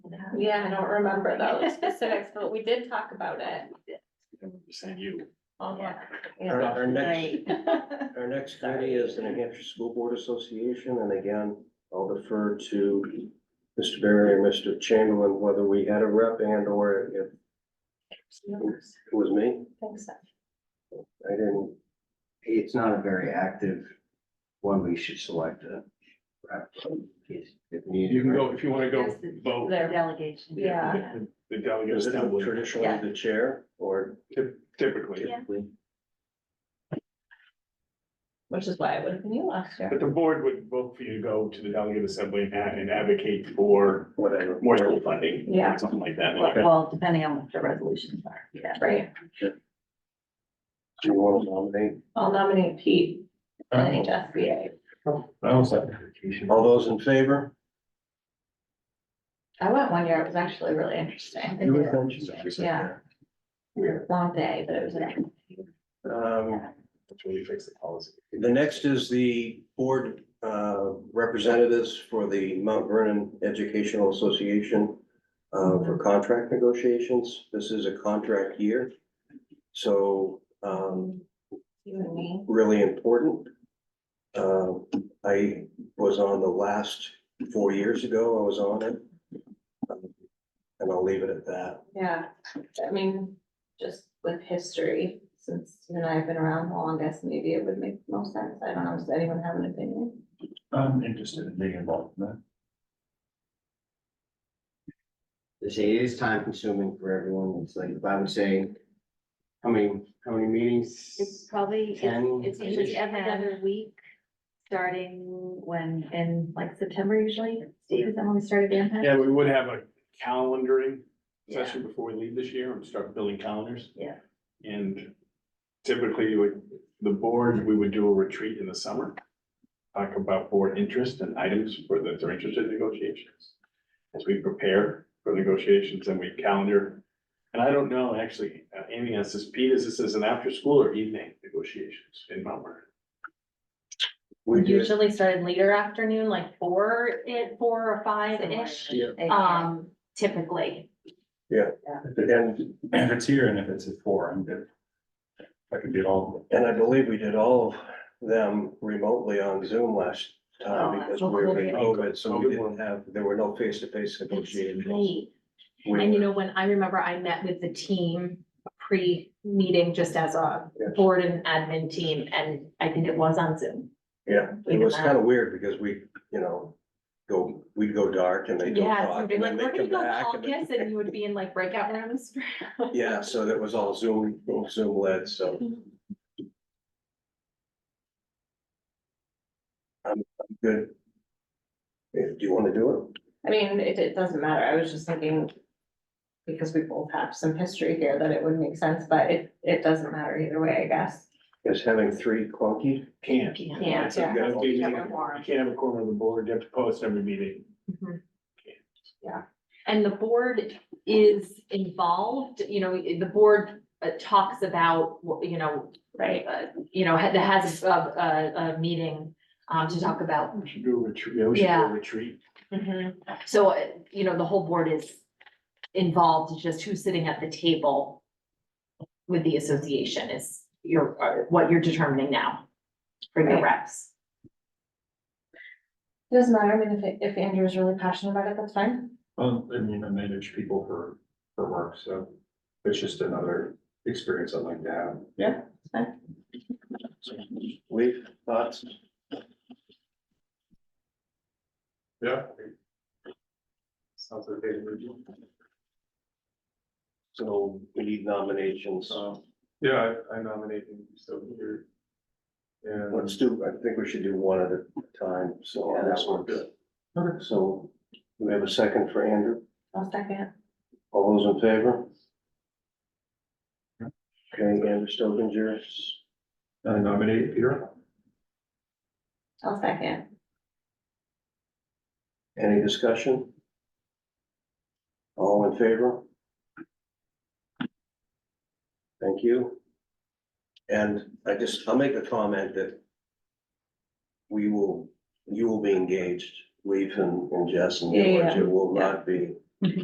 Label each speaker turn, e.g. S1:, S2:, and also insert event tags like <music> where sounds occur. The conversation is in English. S1: Yeah, I don't <laughs> remember those specifics, but we did talk about it.
S2: Saying you.
S1: Yeah.
S3: Our, our next,
S4: Right.
S3: our next committee is the New Hampshire School Board Association, and again, I'll defer to Mr. Barry and Mr. Chamberlain, whether we had a rep and or if it was me,
S1: <laughs> Thanks.
S3: I didn't.
S5: It's not a very active one. We should select a. rep if if needed.
S2: You can go, if you wanna go
S4: Yes, the-
S2: vote.
S4: Their delegation.
S1: Yeah.
S2: The delegate
S3: Is it
S2: assembly
S3: traditionally the chair or
S2: typically,
S3: typically?
S1: Which is why it would have been you last year.
S2: but the board would vote for you to go to the delegate assembly and ad- and advocate for
S3: Whatever.
S2: more school funding. or
S1: Yeah.
S2: Something like that.
S4: Well- Well, depending on what the resolutions are, yeah.
S1: Right,
S3: Do you want to nominate?
S1: I'll nominate Pete, NHSBA.
S3: All those in favor?
S1: I went one year, it was actually really interesting,
S3: You were mentioned.
S1: yeah. Long day, but it was an.
S3: Um,
S2: That's where you fix the policy.
S3: The next is the board uh, representatives for the Mount Vernon Educational Association uh, for contract negotiations. This is a contract year. So um,
S1: You and me.
S3: really important. Uh, I was on the last four years ago, I was on it. Um, And I'll leave it at that.
S1: Yeah, I mean, just with history, since you and I have been around the longest, maybe it would make most sense. I don't know, does anyone have an opinion?
S2: I'm interested in being involved in that.
S5: They say it is time consuming for everyone. It's like, if I would say, how many, how many meetings?
S4: It's probably,
S5: Ten.
S4: it's, it's usually every other week, starting when, in like September usually, Steve, is that when we started the impact?
S2: Yeah, we would have a calendaring session before we leave this year and start building calendars.
S4: Yeah.
S2: And typically, like, the board, we would do a retreat in the summer. Talk about board interest and items for those that are interested in negotiations. As we prepare for negotiations and we calendar. And I don't know, actually, uh, Amy asked this, Pete, is this as an after-school or evening negotiations in Mount Vernon?
S3: We do it
S6: usually started later afternoon, like four, it, four or five-ish, um, typically.
S3: at the end,
S7: If it's here and if it's at four, I'm good. I could be all.
S3: And I believe we did all of them remotely on Zoom last
S4: Oh,
S3: time
S4: that's
S3: because we
S4: what
S3: were
S4: we're
S3: in
S4: doing.
S3: COVID, so we didn't have, there were no face-to-face negotiations.
S6: Great.
S3: We-
S6: And you know, when I remember I met with the team pre-meeting, just as a
S3: Yes.
S6: board and admin team, and I think it was on Zoom.
S3: Yeah,
S6: we
S3: it was
S6: did
S3: kind of weird because we, you know, go, we'd go dark and they don't
S6: Yeah,
S3: talk
S6: somebody
S3: and
S6: like,
S3: then they
S6: we're gonna
S3: come
S6: go
S3: back.
S6: call
S3: and then-
S6: this, and you would be in like breakout rooms.
S3: Yeah, so that was all Zoom, Zoom led, so.
S6: Mm-hmm.
S3: I'm, I'm good. If, do you want to do
S1: I mean, it, it doesn't matter, I was just thinking. Because we both have some history here that it would make sense, but it, it doesn't matter either way, I guess.
S3: it? Is having three clunky?
S2: Can't.
S1: Yeah,
S2: It's a
S1: yeah.
S2: good meeting.
S1: Yeah, we're warm.
S2: You can't have a corner of the board, you have to post every meeting.
S6: And the board is involved, you know, the board uh, talks about, you know,
S1: Right.
S6: uh, you know, had, has a, a, a meeting, um, to talk about.
S2: We should do a retreat, yeah, we should do a
S6: Yeah.
S2: retreat.
S6: So, uh, you know, the whole board is involved, it's just who's sitting at the table with the association is your, uh, what you're determining now for the
S1: Right.
S6: reps.
S1: It doesn't matter, I mean, if, it- if Andrew is really passionate about it, that's fine.
S7: Well, Um, I mean, I manage people for, for work, so it's just another experience I'd like to have.
S3: Leave thoughts?
S2: Yeah. Sounds like they would do.
S3: So we need nominations.
S2: So, Um, yeah, I- I nominate him, so here. And
S3: Let's do, I think we should do one at a time, so on
S5: Yeah,
S3: this
S5: that
S3: one.
S5: works.
S3: Okay, So do we have a second for Andrew?
S1: I'll second.
S3: All those in favor? Okay, Andrew Stovinger.
S7: I Uh, nominate Peter.
S1: I'll second.
S3: Any discussion? All in favor? Thank you. And I just, I'll make a comment that we will, you will be engaged, Leif and and Jess and
S1: Yeah, yeah,
S3: George, it will
S1: yeah.
S3: not be